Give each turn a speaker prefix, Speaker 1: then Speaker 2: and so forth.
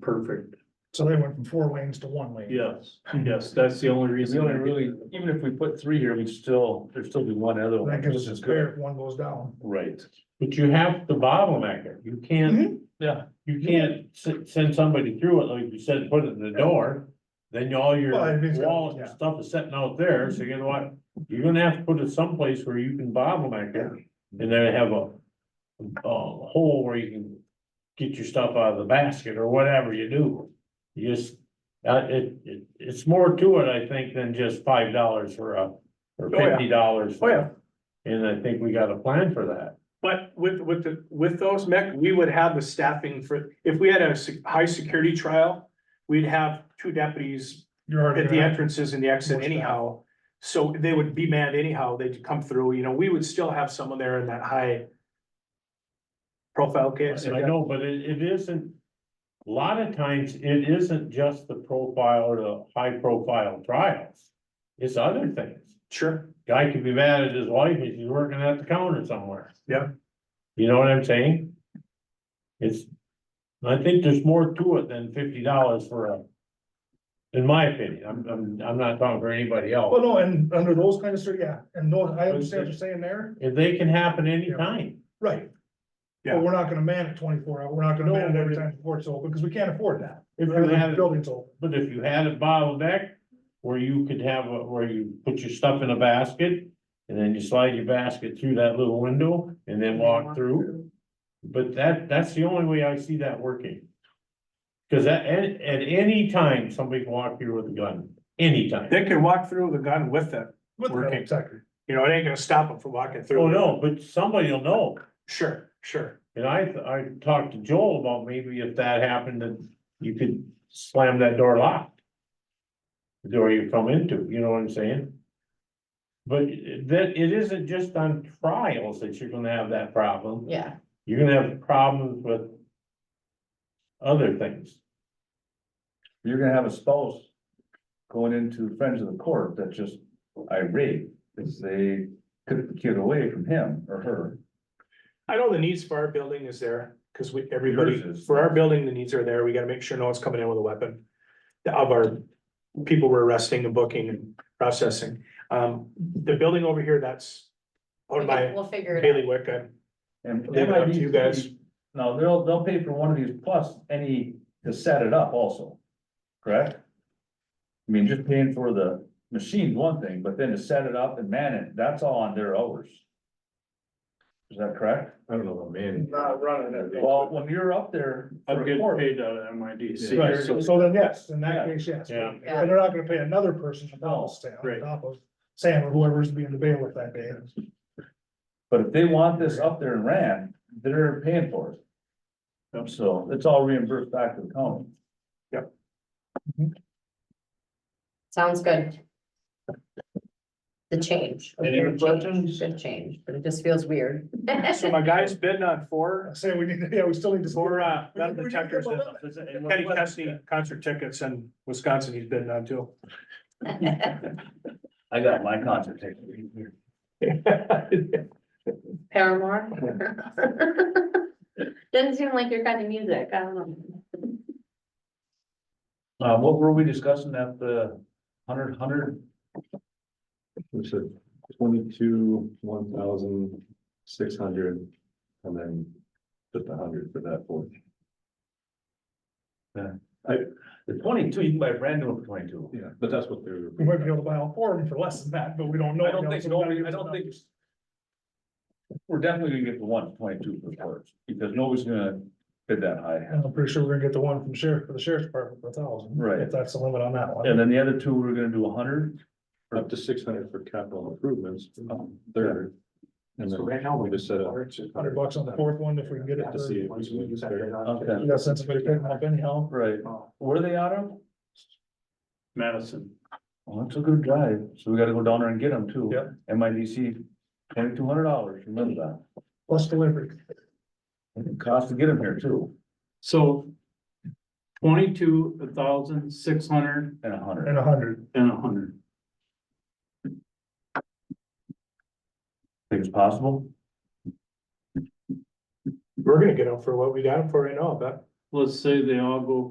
Speaker 1: perfect.
Speaker 2: So they went from four lanes to one lane.
Speaker 1: Yes, yes, that's the only
Speaker 3: Because
Speaker 1: reason.
Speaker 3: you only really, even if we put three here, we still, there'd still be one other one,
Speaker 2: That
Speaker 3: which
Speaker 2: gives us a
Speaker 3: is
Speaker 2: spare
Speaker 3: good.
Speaker 2: if one goes down.
Speaker 3: Right, but you have to bottleneck it, you
Speaker 1: Mm-hmm.
Speaker 3: can't, yeah, you can't s- send somebody through it, like you said, put it in the door. Then all your
Speaker 2: Well, if it's got-
Speaker 3: walls and
Speaker 2: yeah.
Speaker 3: stuff is sitting out there, so you know what, you're gonna have to put it someplace where you can bottleneck it. And then have a, a hole where you can get your stuff out of the basket or whatever you do. You just, uh, it, it, it's more to it, I think, than just five dollars for a, or
Speaker 1: Oh, yeah.
Speaker 3: fifty dollars.
Speaker 1: Oh, yeah.
Speaker 3: And I think we got a plan for that.
Speaker 1: But with, with the, with those mech, we would have the staffing for, if we had a se- high security trial, we'd have two deputies
Speaker 2: You're already.
Speaker 1: at the
Speaker 2: gonna-
Speaker 1: entrances and the exit
Speaker 2: More staff.
Speaker 1: anyhow. So they would be manned anyhow, they'd come through, you know, we would still have someone there in that high profile case.
Speaker 3: And I know, but it, it isn't, a lot of times, it isn't just the profile or the high profile trials. It's other things.
Speaker 1: Sure,
Speaker 3: Guy could be mad at his wife if he's working at the counter somewhere.
Speaker 1: Yeah.
Speaker 3: You know what I'm saying? It's, I think there's more to it than fifty dollars for a. In my opinion, I'm, I'm, I'm not talking for anybody
Speaker 2: Well,
Speaker 3: else.
Speaker 2: Oh, no, and under those kind of, cir- yeah, and no, I understand what you're saying there,
Speaker 3: If they can happen anytime.
Speaker 2: right.
Speaker 1: Yeah.
Speaker 2: But we're not gonna man it twenty-four hour, we're not gonna
Speaker 3: No,
Speaker 2: man it every
Speaker 3: but-
Speaker 2: time the court's open, because we can't afford that.
Speaker 3: If you
Speaker 2: Every
Speaker 3: had-
Speaker 2: building's open,
Speaker 3: But if you had a bottleneck, where you could have, a- where you put your stuff in a basket, and then you slide your basket through that little window and then walk through. But that, that's the only way I see that working. Cause at, at, at any time, somebody can walk through with a gun, anytime.
Speaker 1: they could walk through with a gun with them,
Speaker 2: with the
Speaker 1: Working.
Speaker 2: exactly.
Speaker 1: you know, it ain't gonna stop them from walking through.
Speaker 3: Oh, no, but somebody will know.
Speaker 1: Sure, sure,
Speaker 3: And I, I talked to Joel about maybe if that happened, that you could slam that door locked. The door you come into, you know what I'm saying? But that, it isn't just on trials that you're gonna have that problem,
Speaker 4: Yeah,
Speaker 3: you're gonna have problems with. Other things,
Speaker 5: you're gonna have a spouse going into friends of the court that's just irate because they took the kid away from him or her.
Speaker 1: I know the needs for our building is there, cause we, everybody,
Speaker 5: Yours is.
Speaker 1: for our building, the needs are there, we gotta make sure no one's coming in with a weapon. Of our people we're arresting and booking and processing, um, the building over here, that's. Owned by
Speaker 4: we'll figure it out.
Speaker 1: Bailey Wicca,
Speaker 5: And
Speaker 1: Leave
Speaker 5: they
Speaker 1: it up
Speaker 5: might
Speaker 1: to
Speaker 5: be,
Speaker 1: you guys.
Speaker 5: no, they'll, they'll pay for one of these plus any to set it up also, correct? I mean, just paying for the machine's one thing, but then to set it up and man it, that's all on their hours. Is that correct?
Speaker 3: I don't know about man.
Speaker 2: Not running it.
Speaker 5: Well, when you're up there. for a court,
Speaker 3: out of MIDC.
Speaker 2: Right, so so then, yes, in that case, yes.
Speaker 3: Yeah.
Speaker 2: And they're not gonna pay another person to double stand on
Speaker 1: Right.
Speaker 2: top of Sam or whoever's being the bailiff that day.
Speaker 5: But if they want this up there in Rand, they're paying for it. So it's all reimbursed back to the county.
Speaker 4: Sounds good. The change.
Speaker 3: Any other
Speaker 4: Good
Speaker 3: questions?
Speaker 4: change, Good change, but it just feels weird.
Speaker 1: so my guy's bidding on four,
Speaker 2: Say we need, to- yeah, we still need to.
Speaker 1: four, uh, metal
Speaker 2: We- we-
Speaker 1: detectors. Kenny Chesney concert tickets in Wisconsin, he's bidding on too.
Speaker 5: I got my concert ticket.
Speaker 4: Paramore? Doesn't seem like your kind of music, I don't know.
Speaker 5: Uh, what were we discussing at the hundred, hundred?
Speaker 6: Which is twenty-two, one thousand, six hundred, and then just a hundred for that fourth.
Speaker 5: The twenty-two, you can buy brand new for twenty-two.
Speaker 6: Yeah. But that's what they were.
Speaker 2: We might be able to buy all four of them for less than that, but we don't know.
Speaker 5: I don't think,
Speaker 2: so we gotta
Speaker 5: nobody-
Speaker 2: give
Speaker 5: I
Speaker 2: us
Speaker 5: don't
Speaker 2: enough.
Speaker 5: think. We're definitely gonna get the one twenty-two for first, because nobody's gonna bid that high.
Speaker 2: And I'm pretty sure we're gonna get the one from sheriff, for the sheriff's department for a thousand.
Speaker 5: Right.
Speaker 2: If that's the limit on that one.
Speaker 5: And then the other two, we're gonna do a hundred.
Speaker 6: Up to six hundred for capital improvements, third. And then
Speaker 1: right now,
Speaker 6: we just set up.
Speaker 2: Hundred bucks on the fourth one if we can get it.
Speaker 6: To see if
Speaker 2: for-
Speaker 6: we can use that or not.
Speaker 5: Okay.
Speaker 2: You got sense of it, pick them up anyhow.
Speaker 5: Right. Where are they out of?
Speaker 1: Madison.
Speaker 5: Well, that's a good drive, so we gotta go down there and get them too.
Speaker 1: Yep.
Speaker 5: MIDC, twenty-two hundred dollars, remember
Speaker 2: Plus delivery.
Speaker 5: that, It costs to get them here too,
Speaker 7: So twenty-two thousand, six hundred
Speaker 5: and a hundred.
Speaker 2: And a hundred.
Speaker 7: and a hundred.
Speaker 5: Think it's possible?
Speaker 1: We're gonna get them for what we got them for right now, I bet.
Speaker 7: Let's say they all go